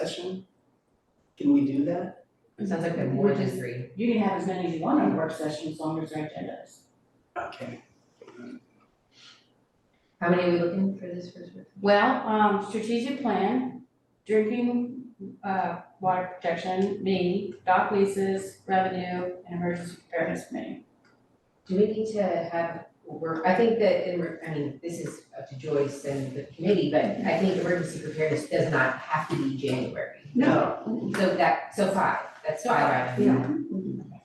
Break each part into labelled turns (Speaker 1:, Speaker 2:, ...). Speaker 1: session? Can we do that?
Speaker 2: Sounds like we have more
Speaker 3: We're
Speaker 2: than
Speaker 3: just-
Speaker 2: three.
Speaker 3: You can have as many as you want on a work session as long as they're agendas.
Speaker 1: Okay.
Speaker 2: How many are we looking for this first one?
Speaker 3: Well, um, strategic plan, drinking, uh, water protection, me, dock leases, revenue, and emergency preparedness committee.
Speaker 2: Do we need to have, work? I think that, in re- I mean, this is up to Joyce and the committee, but I think emergency preparedness does not have to be January.
Speaker 1: No.
Speaker 2: So that, so five, that's five items.
Speaker 3: Yeah.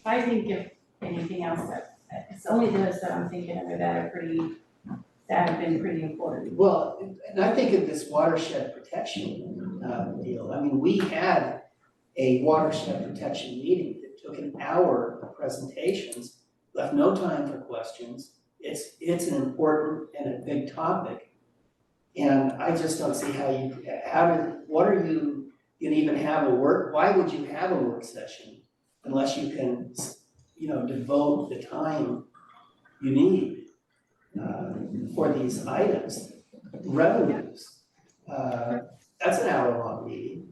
Speaker 3: If I think of anything else that, it's only those that I'm thinking of that are pretty, that have been pretty important.
Speaker 1: Well, and I think of this watershed protection uh, deal. I mean, we had a watershed protection meeting that took an hour of presentations, left no time for questions. It's, it's an important and a big topic. And I just don't see how you, how do, what are you, you can even have a work, why would you have a work session unless you can, you know, devote the time you need uh, for these items, revenues. Uh, That's an hour-long meeting.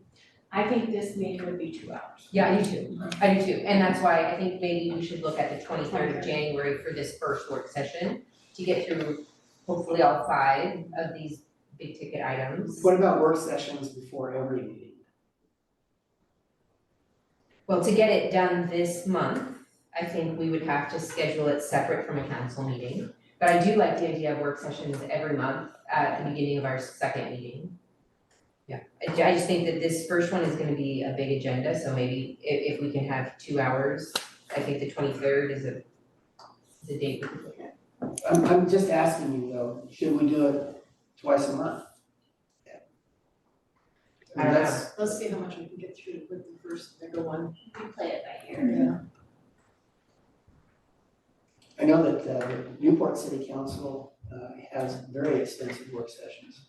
Speaker 3: I think this meeting would be two hours.
Speaker 2: Yeah, I do too, I do too, and that's why I think maybe we should look at the twenty-third of January for this first work session to get through hopefully all five of these big ticket items.
Speaker 1: What about work sessions before every meeting?
Speaker 2: Well, to get it done this month, I think we would have to schedule it separate from a council meeting. But I do like the idea of work sessions every month at the beginning of our second meeting. Yeah, I ju- I just think that this first one is gonna be a big agenda, so maybe if if we can have two hours, I think the twenty-third is a is a date we could look at.
Speaker 1: I'm, I'm just asking you though, should we do it twice a month?
Speaker 2: I don't know.
Speaker 1: That's-
Speaker 4: Let's see how much we can get through with the first bigger one.
Speaker 3: We play it by ear.
Speaker 1: I know that uh, Newport City Council uh, has very extensive work sessions.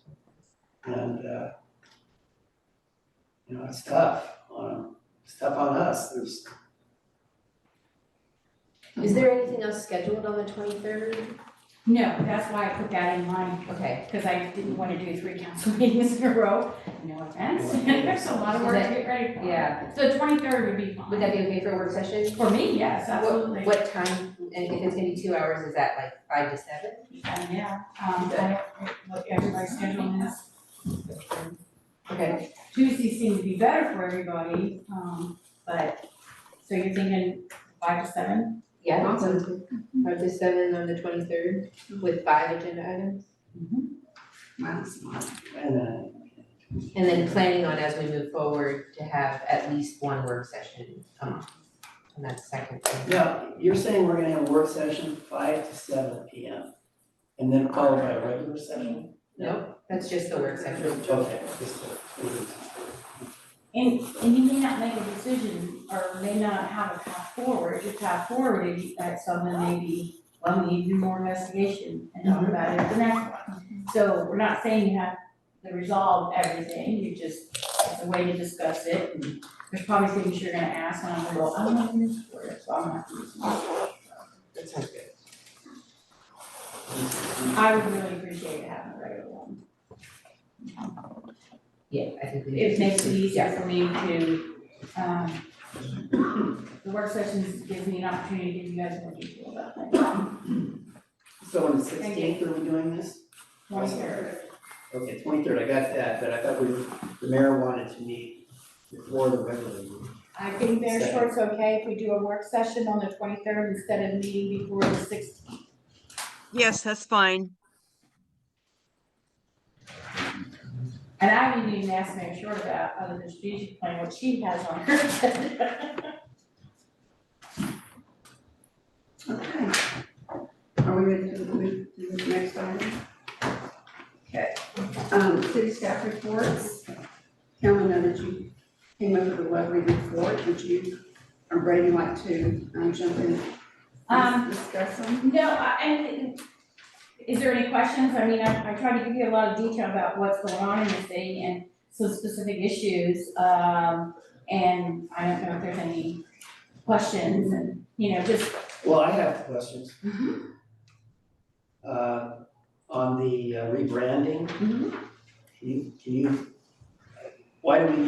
Speaker 1: And, uh, you know, it's tough on, it's tough on us. There's,
Speaker 2: Is there anything else scheduled on the twenty-third?
Speaker 3: No, that's why I put that in mind,
Speaker 2: Okay,
Speaker 3: because I didn't want to do three council meetings in a row, no offense, there's a lot of work to get ready for.
Speaker 2: yeah,
Speaker 3: So twenty-third would be fine.
Speaker 2: would that be okay for a work session?
Speaker 3: For me, yes,
Speaker 2: What-
Speaker 3: absolutely.
Speaker 2: What time, and if it's gonna be two hours, is that like five to seven?
Speaker 3: Uh, Yeah, um, I don't, what everybody's scheduling is,
Speaker 2: Okay,
Speaker 3: Tuesday seemed to be better for everybody, um, but, so you're thinking five to seven?
Speaker 2: yeah, awesome. Five to seven on the twenty-third with five agenda items.
Speaker 1: and, uh,
Speaker 2: And then planning on as we move forward to have at least one work session a month. And that's second thing.
Speaker 1: Now, you're saying we're gonna have a work session five to seven P M. And then followed by a regular session?
Speaker 2: No, that's just the work session.
Speaker 1: Okay, just
Speaker 3: And, and you may not make a decision, or may not have a path forward, your path forward is that someone maybe, well, we need to do more investigation and talk about it at the next one. So we're not saying you have to resolve everything, you just, it's a way to discuss it, and there's probably things you're gonna ask, and I'm gonna go, I'm not in this word, so I'm not. using this word."
Speaker 2: That sounds good.
Speaker 3: I would really appreciate having a regular one,
Speaker 2: Yeah, I think we.
Speaker 3: it makes it easier for me to, um, the work sessions gives me an opportunity to give you guys more detail about things.
Speaker 1: So on the
Speaker 3: Thank you.
Speaker 1: sixteenth, are we doing this?
Speaker 3: One third.
Speaker 1: Okay, twenty-third, I got that, but I thought we, were- the mayor wanted to meet before the regular meeting.
Speaker 3: I think Bear Short's okay if we do a work session on the twenty-third instead of meeting before the sixteenth.
Speaker 5: Yes, that's fine.
Speaker 3: And I didn't even ask Mayor Short about other than strategic plan, what she has on her agenda.
Speaker 6: Okay. Are we ready to move to the next item? Okay. Um, city staff reports. Carolyn, I know that you came up with a lovely report. Would you, or Brady, like to um, jump in
Speaker 3: Um,
Speaker 6: and discuss them?
Speaker 3: no, I, and is there any questions? I mean, I, I tried to give you a lot of detail about what's going on in this thing and some specific issues. Um, and I don't know if there's any questions
Speaker 6: uh,
Speaker 3: and, you know, just,
Speaker 1: Well, I have questions.
Speaker 3: Mm-hmm.
Speaker 1: Uh,
Speaker 3: Mm-hmm.
Speaker 1: on the uh, rebranding. Can you, can you, why do we